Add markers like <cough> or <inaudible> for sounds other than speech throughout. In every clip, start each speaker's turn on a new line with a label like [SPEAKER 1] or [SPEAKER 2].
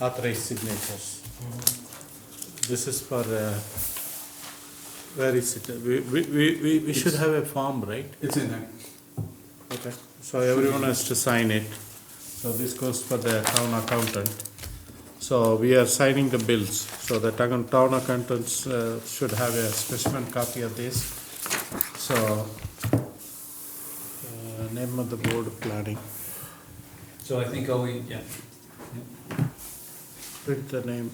[SPEAKER 1] authorized signatures. This is for, uh, where is it? We, we, we- we, we should have a form, right?
[SPEAKER 2] It's in there.
[SPEAKER 1] Okay. So everyone has to sign it. So this goes for the town accountant. So we are signing the bills, so the town town accountants uh, should have a specimen copy of this. So, uh, name of the board of planning,
[SPEAKER 2] So I think all we, yeah.
[SPEAKER 1] print the name.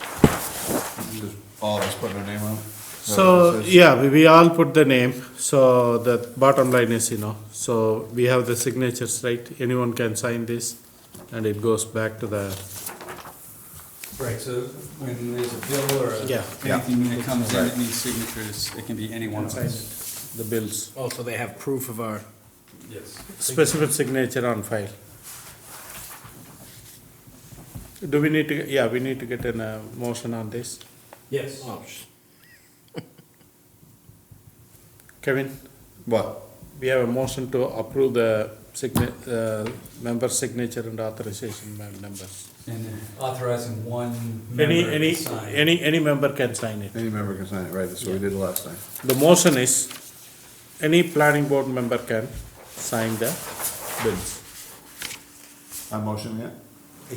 [SPEAKER 3] Just all of us putting our name on it?
[SPEAKER 1] So, yeah, we, we all put the name, so the bottom line is, you know, so we have the signatures, right? Anyone can sign this, and it goes back to the,
[SPEAKER 2] Right, so when there's a bill or a-
[SPEAKER 1] Yeah.
[SPEAKER 2] anything that comes in that needs signatures, it can be any one of us.
[SPEAKER 1] the bills.
[SPEAKER 4] Oh, so they have proof of our,
[SPEAKER 2] Yes.
[SPEAKER 1] Specific signature on file. Do we need to, yeah, we need to get an, uh, motion on this.
[SPEAKER 2] Yes.
[SPEAKER 4] oh, sh-
[SPEAKER 1] Kevin,
[SPEAKER 3] What?
[SPEAKER 1] we have a motion to approve the signa- uh, member signature and authorization by members.
[SPEAKER 2] And
[SPEAKER 4] uh,
[SPEAKER 2] authorizing one
[SPEAKER 1] Any,
[SPEAKER 2] member to
[SPEAKER 1] any,
[SPEAKER 2] sign.
[SPEAKER 1] any, any member can sign it.
[SPEAKER 3] Any member can sign it, right, that's what we did last time.
[SPEAKER 1] The motion is, any planning board member can sign the bills.
[SPEAKER 3] I motion yet?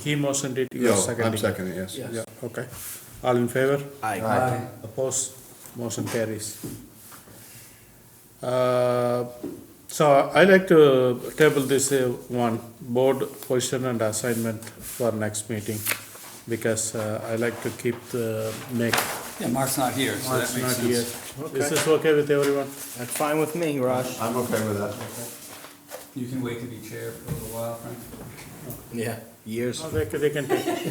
[SPEAKER 1] He motioned it, you
[SPEAKER 3] Yeah,
[SPEAKER 1] are seconding.
[SPEAKER 3] I'm seconding, yes.
[SPEAKER 4] Yes.
[SPEAKER 1] Yeah, okay. All in favor?
[SPEAKER 4] aye.
[SPEAKER 2] Aye.
[SPEAKER 1] Opposed, motion carries. Uh, So I like to table this uh, one, board position and assignment for next meeting, because uh, I like to keep the, make,
[SPEAKER 2] Yeah, Mark's not here, so that
[SPEAKER 1] Mark's
[SPEAKER 2] makes
[SPEAKER 1] not here.
[SPEAKER 2] sense.
[SPEAKER 1] Is this okay with everyone?
[SPEAKER 4] That's fine with me, Raj.
[SPEAKER 3] I'm okay with that.
[SPEAKER 2] You can wait to be chair for a little while, Frank.
[SPEAKER 4] Yeah, years. Um,
[SPEAKER 1] No, They can, they can take, it.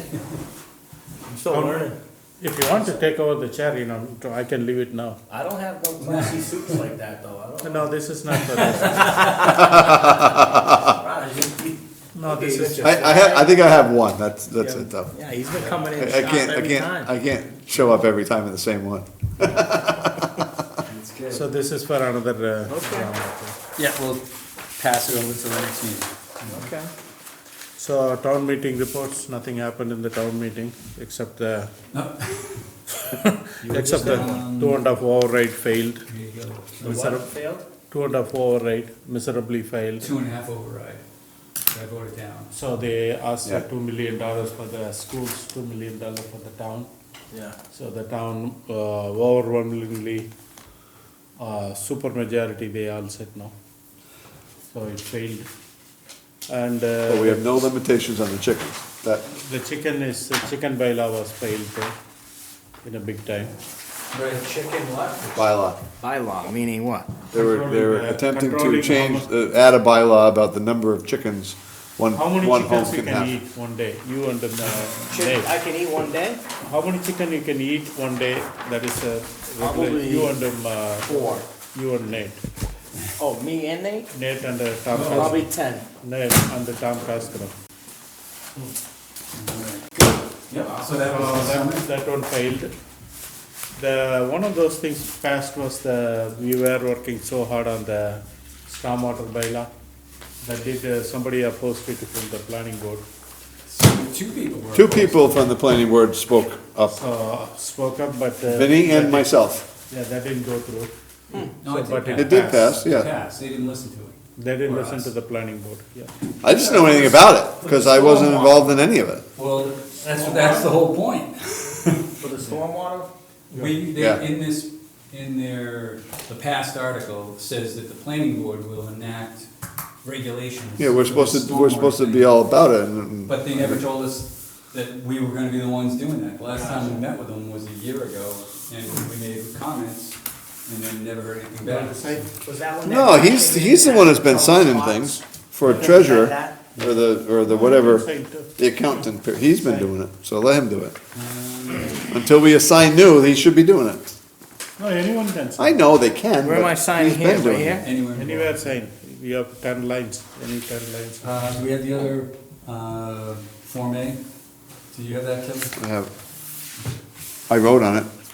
[SPEAKER 4] I'm still learning.
[SPEAKER 1] if you want to take over the chair, you know, I can leave it now.
[SPEAKER 4] I don't have no classy suits like that, though. I don't.
[SPEAKER 1] No, this is not for this.
[SPEAKER 4] Raj, you- you-
[SPEAKER 1] No, this is just,
[SPEAKER 3] I, I have, I think I have one, that's, that's it though.
[SPEAKER 4] Yeah, he's been coming
[SPEAKER 3] I I
[SPEAKER 4] in shots
[SPEAKER 3] can't, I
[SPEAKER 4] every
[SPEAKER 3] can't,
[SPEAKER 4] time.
[SPEAKER 3] I can't show up every time in the same one.
[SPEAKER 2] That's good.
[SPEAKER 1] so this is for another. uh,
[SPEAKER 2] Yeah, we'll pass it over to the next meeting.
[SPEAKER 4] Okay.
[SPEAKER 1] So town meeting reports, nothing happened in the town meeting, except the,
[SPEAKER 2] No.
[SPEAKER 1] except the
[SPEAKER 2] Um,
[SPEAKER 1] two and a half override failed.
[SPEAKER 2] Here you go.
[SPEAKER 4] The
[SPEAKER 1] Miser-
[SPEAKER 4] what failed?
[SPEAKER 1] Two and a half override miserably failed.
[SPEAKER 2] <laughs> Two and a half override, so I voted down.
[SPEAKER 1] So they asked for
[SPEAKER 3] Yeah.
[SPEAKER 1] two million dollars for the schools, two million dollars for the town.
[SPEAKER 4] Yeah.
[SPEAKER 1] So the town uh, overwhelmingly, uh, super majority, they all said no. So it failed. And
[SPEAKER 3] But
[SPEAKER 1] uh,
[SPEAKER 3] we have no limitations on the chickens, that,
[SPEAKER 1] the chicken is, the chicken bylaw was failed uh, in a big time.
[SPEAKER 2] Right, chicken what?
[SPEAKER 3] bylaw.
[SPEAKER 4] Bylaw, meaning what?
[SPEAKER 3] They were, they were
[SPEAKER 1] Controlling, uh,
[SPEAKER 3] attempting to
[SPEAKER 1] controlling
[SPEAKER 3] change,
[SPEAKER 1] how
[SPEAKER 3] uh, add a bylaw about the number of chickens one,
[SPEAKER 1] How many
[SPEAKER 3] one home
[SPEAKER 1] chickens you
[SPEAKER 3] can
[SPEAKER 1] can eat
[SPEAKER 3] have.
[SPEAKER 1] one day? You and the uh,
[SPEAKER 4] Chicken,
[SPEAKER 1] Dave.
[SPEAKER 4] I can eat one day?
[SPEAKER 1] How many chicken you can eat one day? That is a regular.
[SPEAKER 4] Probably-
[SPEAKER 1] You and them. Uh,
[SPEAKER 4] Four.
[SPEAKER 1] you and Nate.
[SPEAKER 4] Oh, me and Nate?
[SPEAKER 1] Nate and uh, Tom. Cas-
[SPEAKER 4] Probably ten.
[SPEAKER 1] Nate and the Tom Castro.
[SPEAKER 2] Yep, so that
[SPEAKER 1] Uh,
[SPEAKER 2] was the
[SPEAKER 1] that,
[SPEAKER 2] summit.
[SPEAKER 1] that one failed. The one of those things passed was the we were working so hard on the stormwater bylaw that did uh, somebody opposed it from the planning board.
[SPEAKER 2] So Two people were.
[SPEAKER 3] Two people from the planning board spoke up,
[SPEAKER 1] So spoke up, but uh,
[SPEAKER 3] Vinny and
[SPEAKER 1] that-
[SPEAKER 3] myself.
[SPEAKER 1] yeah, that didn't go through.
[SPEAKER 2] No, it
[SPEAKER 1] But
[SPEAKER 2] did
[SPEAKER 3] It did pass,
[SPEAKER 2] pass.
[SPEAKER 3] yeah.
[SPEAKER 2] Pass, they didn't listen to it.
[SPEAKER 1] They didn't
[SPEAKER 2] Or
[SPEAKER 1] listen
[SPEAKER 2] us.
[SPEAKER 1] to the planning board, yeah.
[SPEAKER 3] I just know anything about it, because I wasn't involved in any of it.
[SPEAKER 2] Well, that's, that's the whole point.
[SPEAKER 4] For the stormwater?
[SPEAKER 2] We,
[SPEAKER 3] Yeah.
[SPEAKER 2] they, in this, in their, the past article says that the planning board will enact regulations.
[SPEAKER 3] Yeah, we're
[SPEAKER 2] for the
[SPEAKER 3] supposed to, we're
[SPEAKER 2] stormwater
[SPEAKER 3] supposed to
[SPEAKER 2] thing.
[SPEAKER 3] be all about it, and, and-
[SPEAKER 2] But they never told us that we were gonna be the ones doing that. The Last time we met with them was a year ago, and we made comments, and then never heard anything back.
[SPEAKER 4] Was that one? that-
[SPEAKER 3] no, he's, he's the one that's been signing things for treasurer, or the, or the whatever, the accountant, he's been doing it, so let him do it. Until we assign new, he should be doing it.
[SPEAKER 1] No, anyone can sign,
[SPEAKER 3] I know they can,
[SPEAKER 4] Where am I
[SPEAKER 3] but
[SPEAKER 4] signing
[SPEAKER 3] he's
[SPEAKER 4] here,
[SPEAKER 3] been
[SPEAKER 4] right
[SPEAKER 3] doing it.
[SPEAKER 4] here?
[SPEAKER 2] Anywhere. involved.
[SPEAKER 1] anywhere sign, you have ten lines, any ten lines.
[SPEAKER 2] Uh, do we have the other, uh, Form A? Do you have that, Kevin?
[SPEAKER 3] I have, I wrote on it.